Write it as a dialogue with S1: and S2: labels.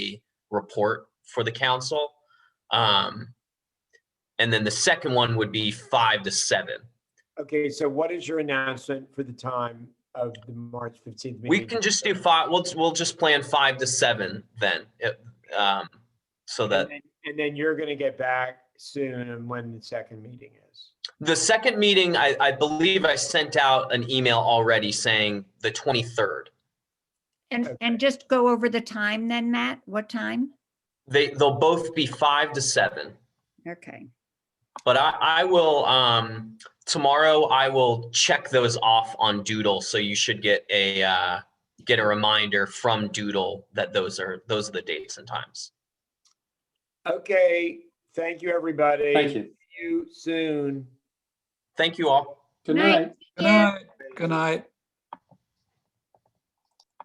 S1: report for the council. Um, and then the second one would be five to seven.
S2: Okay, so what is your announcement for the time of the March 15th meeting?
S1: We can just do five, we'll, we'll just plan five to seven then. it- Um, so
S2: And
S1: that
S2: then- and then you're going to get back soon on when the second meeting is.
S1: the second meeting, I, I believe I sent out an email already saying the twenty-third.
S2: Okay.
S3: And, and just go over the time then, Matt? What time?
S1: They, they'll both be five to seven.
S3: Okay,
S1: But I, I will, um, tomorrow I will check those off on Doodle, so you should get a, uh, get a reminder from Doodle that those are, those are the dates and times.
S2: Okay, thank you, everybody.
S4: Thank you.
S2: See you soon.
S1: Thank you all.
S4: Good
S3: Night.
S4: night.
S5: Good
S3: Yeah.
S5: night. Good night.